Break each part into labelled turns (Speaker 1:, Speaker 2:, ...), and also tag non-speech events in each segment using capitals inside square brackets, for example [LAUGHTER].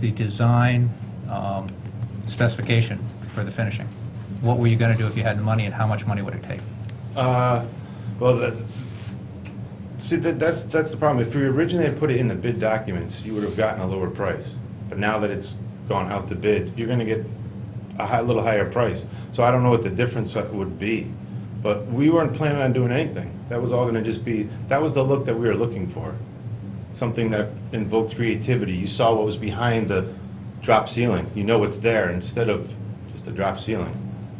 Speaker 1: the design um, specification for the finishing. What were you going to do if you had the money, and how much money would it take?
Speaker 2: Uh, Well, that, see, that, that's, that's the problem. If we originally had put it in the bid documents, you would have gotten a lower price. But now that it's gone out to bid, you're gonna get a high, little higher price. So I don't know what the difference would be. But we weren't planning on doing anything. That was all gonna just be, that was the look that we were looking for. Something that invoked creativity. You saw what was behind the drop ceiling. You know what's there instead of just a drop ceiling.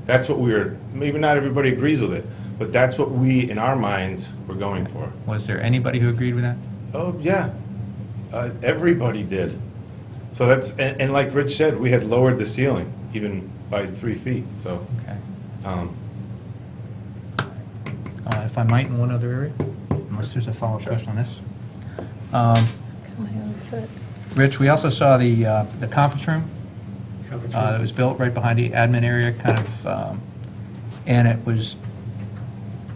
Speaker 2: That's what we were, maybe not everybody agrees with it, but that's what we, in our minds, were going for.
Speaker 1: Was there anybody who agreed with that?
Speaker 2: Oh, yeah. Uh, everybody did. So that's, and, and like Rich said, we had lowered the ceiling even by three feet. So,
Speaker 1: Okay.
Speaker 2: um,
Speaker 1: Uh, If I might, in one other area, unless there's a follow-up question on this. Um, Rich, we also saw the uh, the conference room uh, that was built right behind the admin area, kind of, um, and it was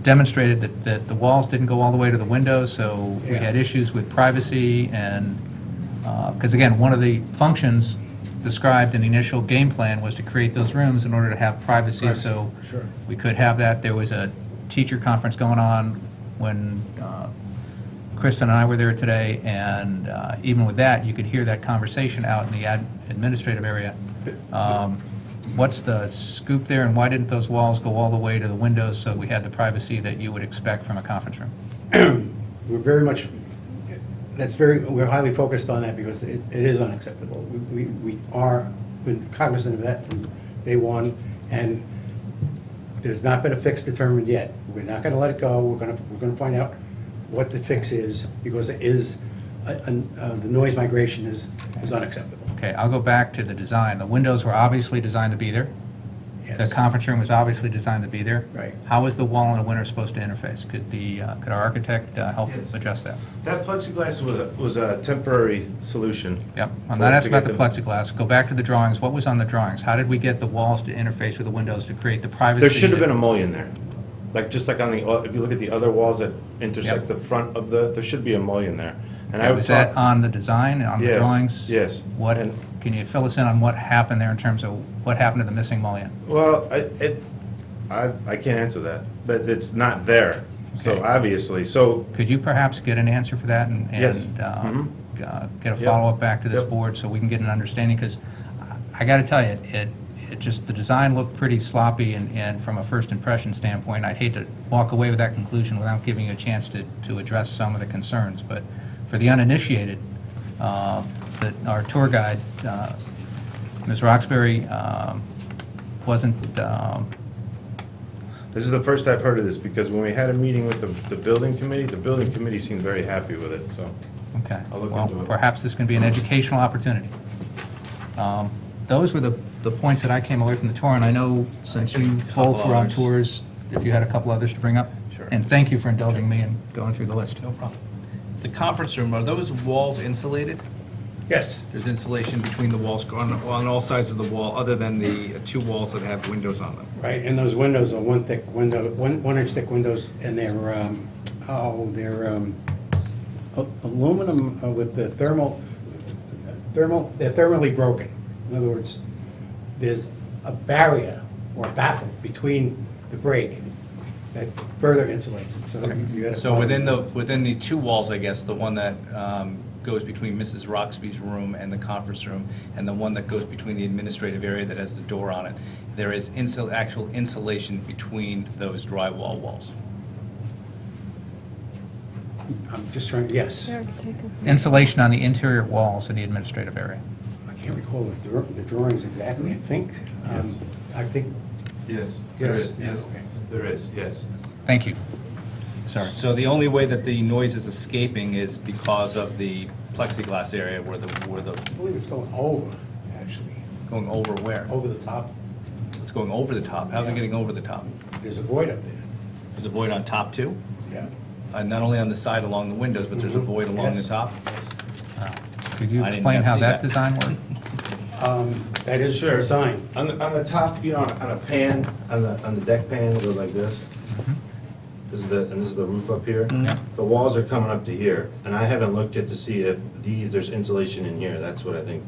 Speaker 1: demonstrated that that the walls didn't go all the way to the windows, so we
Speaker 3: Yeah.
Speaker 1: had issues with privacy and, because again, one of the functions described in the initial game plan was to create those rooms in order to have privacy,
Speaker 3: Privacy,
Speaker 1: so
Speaker 3: sure.
Speaker 1: we could have that. There was a teacher conference going on when uh, Kristen and I were there today, and uh, even with that, you could hear that conversation out in the ad- administrative area. Um, What's the scoop there, and why didn't those walls go all the way to the windows so we had the privacy that you would expect from a conference room?
Speaker 3: We're very much, that's very, we're highly focused on that because it, it is unacceptable. We, we we are been cognizant of that from day one, and there's not been a fix determined yet. We're not gonna let it go, we're gonna, we're gonna find out what the fix is, because it is, uh, uh, the noise migration is, is unacceptable.
Speaker 1: Okay, I'll go back to the design. The windows were obviously designed to be there. The
Speaker 3: Yes.
Speaker 1: conference room was obviously designed to be there.
Speaker 3: Right.
Speaker 1: How is the wall in the winter supposed to interface? Could the, uh, could our architect uh, help
Speaker 2: Yes.
Speaker 1: adjust that?
Speaker 2: that plexiglass was a, was a temporary solution.
Speaker 1: Yep, I'm
Speaker 2: For-
Speaker 1: not
Speaker 2: to
Speaker 1: asking about the
Speaker 2: get
Speaker 1: plexiglass. Go back to the drawings. What was on the drawings? How did we get the walls to interface with the windows to create the privacy?
Speaker 2: There should have
Speaker 1: that-
Speaker 2: been a mullion there. Like, just like on the, o- if you look at the other walls that intersect
Speaker 1: Yep.
Speaker 2: the front of the, there should be a mullion there. And I
Speaker 1: Okay,
Speaker 2: would
Speaker 1: Was Um, that
Speaker 2: talk-
Speaker 1: on the design, on the
Speaker 2: Yes,
Speaker 1: drawings?
Speaker 2: yes.
Speaker 1: What,
Speaker 2: And-
Speaker 1: can you fill us in on what happened there in terms of what happened to the missing mullion?
Speaker 2: Well, I, it, I, I can't answer that, but it's not there, so
Speaker 1: Okay.
Speaker 2: obviously, so,
Speaker 1: Could you perhaps get an answer for that and,
Speaker 2: Yes.
Speaker 1: and um, uh, get a
Speaker 2: Yep.
Speaker 1: follow-up back to this
Speaker 2: Yep.
Speaker 1: board so we can get an understanding? Because I got to tell you, it, it just, the design looked pretty sloppy and, and from a first impression standpoint, I'd hate to walk away with that conclusion without giving you a chance to, to address some of the concerns. But for the uninitiated, uh, that our tour guide, uh, Ms. Roxbury, um, wasn't, um,
Speaker 2: this is the first I've heard of this, because when we had a meeting with the, the building committee, the building committee seemed very happy with it, so.
Speaker 1: Okay.
Speaker 2: I'll look into
Speaker 1: Well,
Speaker 2: it.
Speaker 1: perhaps this can be an educational opportunity. Um, Those were the, the points that I came away from the tour, and I know since you both were on
Speaker 4: others.
Speaker 1: tours, if you had a couple others to bring up.
Speaker 4: Sure.
Speaker 1: And thank you for indulging me and going through the list.
Speaker 4: No problem. The conference room, are those walls insulated?
Speaker 3: Yes,
Speaker 4: There's insulation between the walls on, on all sides of the wall, other than the two walls that have windows on them.
Speaker 3: right, and those windows are one thick window, one, one inch thick windows, and they're, um, oh, they're, um, a- aluminum uh, with the thermal, thermal, they're thermally broken. In other words, there's a barrier or baffle between the break that further insulates it, so you gotta.
Speaker 4: So within the, within the two walls, I guess, the one that um, goes between Mrs. Roxby's room and the conference room, and the one that goes between the administrative area that has the door on it, there is insul, actual insulation between those drywall walls.
Speaker 3: I'm just trying, yes,
Speaker 1: Insulation on the interior walls in the administrative area.
Speaker 3: I can't recall the dra- the drawings exactly, I think, um, I think,
Speaker 2: Yes,
Speaker 3: there Yes, is, yes, yes. okay.
Speaker 2: there is, yes.
Speaker 1: Thank you. Sorry.
Speaker 4: So the only way that the noise is escaping is because of the plexiglass area where the, where the,
Speaker 3: I believe it's going over, actually,
Speaker 4: going over where?
Speaker 3: over the top,
Speaker 4: It's going over the top. How's it getting over the top?
Speaker 3: there's a void up there.
Speaker 4: There's a void on top too,
Speaker 3: Yeah.
Speaker 4: uh, not only on the side along the windows, but there's a
Speaker 3: Mhm.
Speaker 4: void along the
Speaker 3: Yes.
Speaker 4: top.
Speaker 1: Could you
Speaker 4: I didn't
Speaker 1: explain
Speaker 4: have
Speaker 1: how
Speaker 4: seen
Speaker 1: that
Speaker 4: that.
Speaker 1: design worked?
Speaker 2: [LAUGHS]
Speaker 3: Um, That is
Speaker 2: Sure.
Speaker 3: the sign.
Speaker 2: On the, on the top, you know, on on a pan, on the, on the deck pan, it goes like this. This is the, and this is the roof up here.
Speaker 1: Yeah.
Speaker 2: The walls are coming up to here, and I haven't looked yet to see if these, there's insulation in here, that's what I think